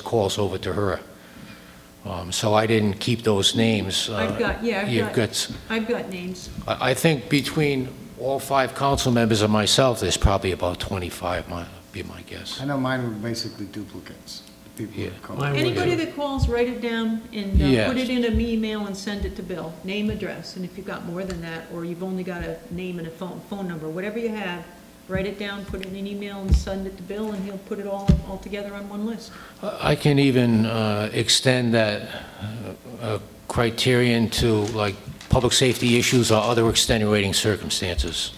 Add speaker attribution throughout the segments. Speaker 1: calls over to her. Um, So I didn't keep those names. uh,
Speaker 2: I've got, yeah, I've
Speaker 1: You've
Speaker 2: got-
Speaker 1: got, s-
Speaker 2: I've got names.
Speaker 1: I I think between all five council members and myself, there's probably about 25, might be my guess.
Speaker 3: I know mine were basically duplicates, the people
Speaker 1: Yeah.
Speaker 3: that called.
Speaker 4: Mine were-
Speaker 2: Anybody that calls, write it down and uh,
Speaker 1: Yes.
Speaker 2: put it in an email and send it to Bill. Name, address, and if you've got more than that, or you've only got a name and a phone, phone number, whatever you have, write it down, put it in an email and send it to Bill, and he'll put it all, all together on one list.
Speaker 1: I can even uh, extend that uh, uh, criterion to like public safety issues or other extenuating circumstances.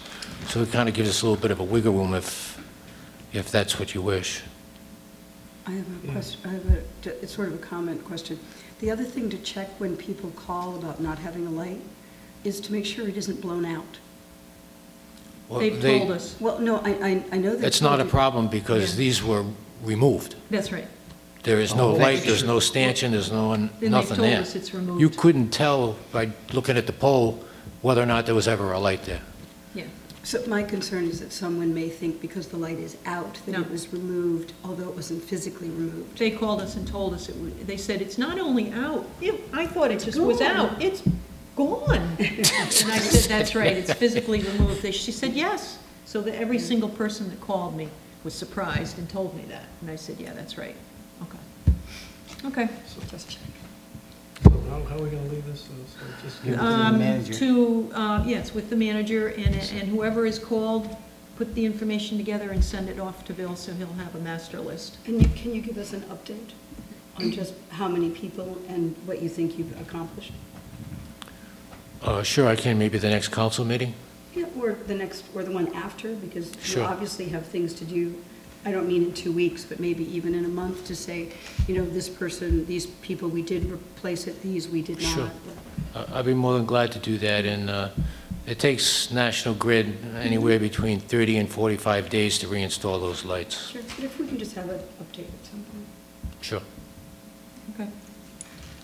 Speaker 1: So it kind of gives us a little bit of a wiggle room if, if that's what you wish.
Speaker 5: I have a question, I have a, it's sort of a comment question. The other thing to check when people call about not having a light is to make sure it isn't blown out.
Speaker 1: Well,
Speaker 2: They've
Speaker 1: they-
Speaker 2: told us.
Speaker 5: Well, no, I, I, I know that.
Speaker 1: It's not a problem because
Speaker 2: Yeah.
Speaker 1: these were removed.
Speaker 2: That's right.
Speaker 1: There is no
Speaker 3: Oh,
Speaker 1: light,
Speaker 3: thank
Speaker 1: there's
Speaker 3: you.
Speaker 1: no stanchion, there's no, one-
Speaker 2: Then they've
Speaker 1: nothing
Speaker 2: told
Speaker 1: there.
Speaker 2: us it's
Speaker 1: You
Speaker 2: removed.
Speaker 1: couldn't tell by looking at the pole whether or not there was ever a light there.
Speaker 2: Yeah.
Speaker 5: So my concern is that someone may think because the light is out, that
Speaker 2: No.
Speaker 5: it was removed, although it wasn't physically removed.
Speaker 2: They called us and told us, it wa- they said, it's not only out, it- I thought it just was
Speaker 5: gone.
Speaker 2: out, it's gone. And I said, that's right, it's physically removed. They- She said, yes. So that every single person that called me was surprised and told me that. And I said, yeah, that's right. Okay. Okay. Just
Speaker 4: How, how are we gonna leave this? So- so just give-
Speaker 3: Yeah.
Speaker 2: um,
Speaker 3: manager.
Speaker 2: To, uh, yes, with the manager, and and whoever is called, put the information together and send it off to Bill, so he'll have a master list.
Speaker 5: And you, can you give us an update on just how many people and what you think you've accomplished?
Speaker 1: Uh, Sure, I can, maybe the next council meeting?
Speaker 5: Yeah, or the next, or the one after, because you
Speaker 1: Sure.
Speaker 5: obviously have things to do, I don't mean in two weeks, but maybe even in a month, to say, you know, this person, these people, we did replace it, these we did not.
Speaker 1: Sure. I- I'd be more than glad to do that, and uh, it takes National Grid anywhere between 30 and 45 days to reinstall those lights.
Speaker 5: Sure, but if we can just have an update at some point.
Speaker 1: Sure.
Speaker 2: Okay.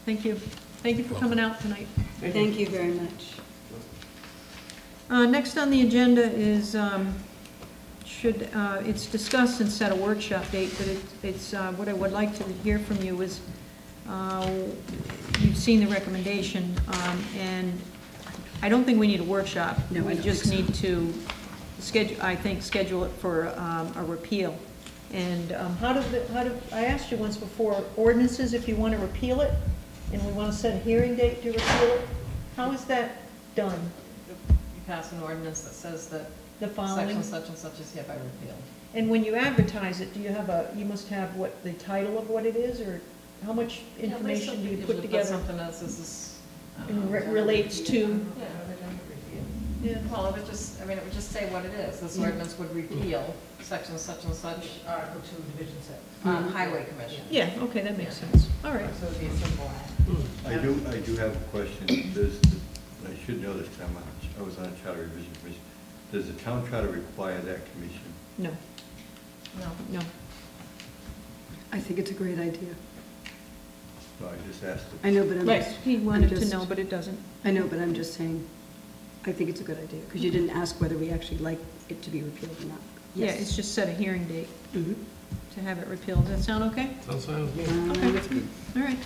Speaker 2: Thank you. Thank you for coming out tonight.
Speaker 5: Thank you very much.
Speaker 2: Uh, Next on the agenda is, um, should, uh, it's discussed and set a workshop date, but it- it's, uh, what I would like to hear from you is, uh, you've seen the recommendation, um, and I don't think we need a workshop.
Speaker 5: No, I don't
Speaker 2: We just
Speaker 5: think so.
Speaker 2: need to schedule, I think, schedule it for um, a repeal. And um, how do, the- how do, I asked you once before, ordinances, if you want to repeal it, and we want to set a hearing date to repeal it, how is that done?
Speaker 6: You pass an ordinance that says that
Speaker 2: The
Speaker 6: section
Speaker 2: following?
Speaker 6: such and such is hereby repealed.
Speaker 2: And when you advertise it, do you have a, you must have what, the title of what it is, or how much information do you put
Speaker 6: Usually
Speaker 2: together?
Speaker 6: Something else is this.
Speaker 2: And re- relates to,
Speaker 6: Yeah,
Speaker 2: yeah,
Speaker 6: well, it would just, I mean, it would just say what it is. This ordinance would repeal section such and such. Article two, division six. Um, highway commission.
Speaker 2: Mm-hmm. yeah, okay, that makes sense, all right.
Speaker 6: So it'd be a simple act.
Speaker 4: Hmm.
Speaker 7: I do, I do have a question. Does, the- I should know this, 'cause I'm on- I was on a charter revision commission. Does the town charter require that commission?
Speaker 2: No,
Speaker 6: No.
Speaker 2: no,
Speaker 5: I think it's a great idea.
Speaker 7: No, I just asked. the-
Speaker 5: I know, but I'm
Speaker 2: right,
Speaker 5: just.
Speaker 2: he
Speaker 5: I'm
Speaker 2: wanted to
Speaker 5: just-
Speaker 2: know, but it doesn't.
Speaker 5: I know, but I'm just saying, I think it's a good idea, because you didn't ask whether we actually like it to be repealed or not.
Speaker 2: Yeah, it's just set a hearing date
Speaker 5: Mhm.
Speaker 2: to have it repealed, does that sound okay?
Speaker 4: Sounds fine with me.
Speaker 5: Um,
Speaker 2: Okay, all right,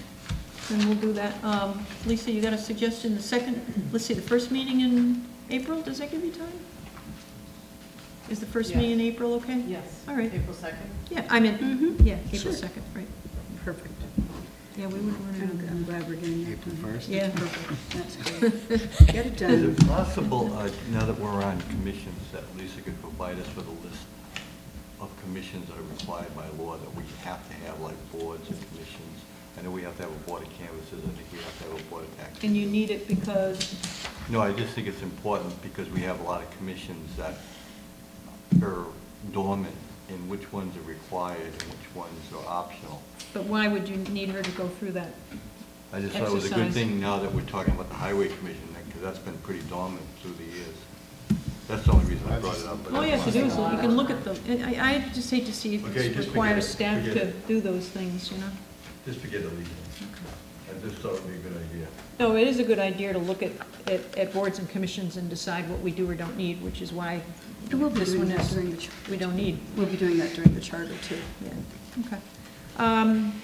Speaker 2: then we'll do that. Um, Lisa, you got a suggestion, the second, let's see, the first meeting in April, does that give you time? Is the first meeting in April okay?
Speaker 6: Yes.
Speaker 2: All right.
Speaker 6: April second.
Speaker 2: Yeah, I meant,
Speaker 5: Mhm.
Speaker 2: yeah, April
Speaker 5: Sure.
Speaker 2: 2nd, right.
Speaker 5: Perfect.
Speaker 2: Yeah, we would run
Speaker 5: I'm I'm
Speaker 2: it.
Speaker 5: glad we're getting that
Speaker 3: April
Speaker 5: done.
Speaker 3: first?
Speaker 2: Yeah,
Speaker 5: Perfect. That's great. Get it
Speaker 7: Is
Speaker 5: done.
Speaker 7: it possible, uh, now that we're on commissions, that Lisa could provide us with a list of commissions that are required by law that we have to have, like boards and commissions? I know we have to have a board of canvases, I think we have to have a board of tax.
Speaker 2: and you need it because,
Speaker 7: No, I just think it's important because we have a lot of commissions that are dormant, and which ones are required and which ones are optional.
Speaker 2: but why would you need her to go through that?
Speaker 7: I just thought it was a good
Speaker 2: Exercise.
Speaker 7: thing now that we're talking about the Highway Commission, because that's been pretty dormant through the years. That's the only reason I brought it up. but
Speaker 2: All you have to do is,
Speaker 7: that's why.
Speaker 2: you can look at the, I, I just hate to see if
Speaker 7: Okay,
Speaker 2: it
Speaker 7: just forget
Speaker 2: requires
Speaker 7: it,
Speaker 2: staff
Speaker 7: forget
Speaker 2: to
Speaker 7: it.
Speaker 2: do those things, you know?
Speaker 7: Just forget it, Lisa. I just thought it would be a good idea.
Speaker 2: No, it is a good idea to look at, at, at boards and commissions and decide what we do or don't need, which is why
Speaker 5: We'll be
Speaker 2: this
Speaker 5: doing
Speaker 2: one
Speaker 5: that
Speaker 2: is,
Speaker 5: during the, char-
Speaker 2: we don't need.
Speaker 5: we'll be doing that during the charter, too.
Speaker 2: Yeah, okay. Um,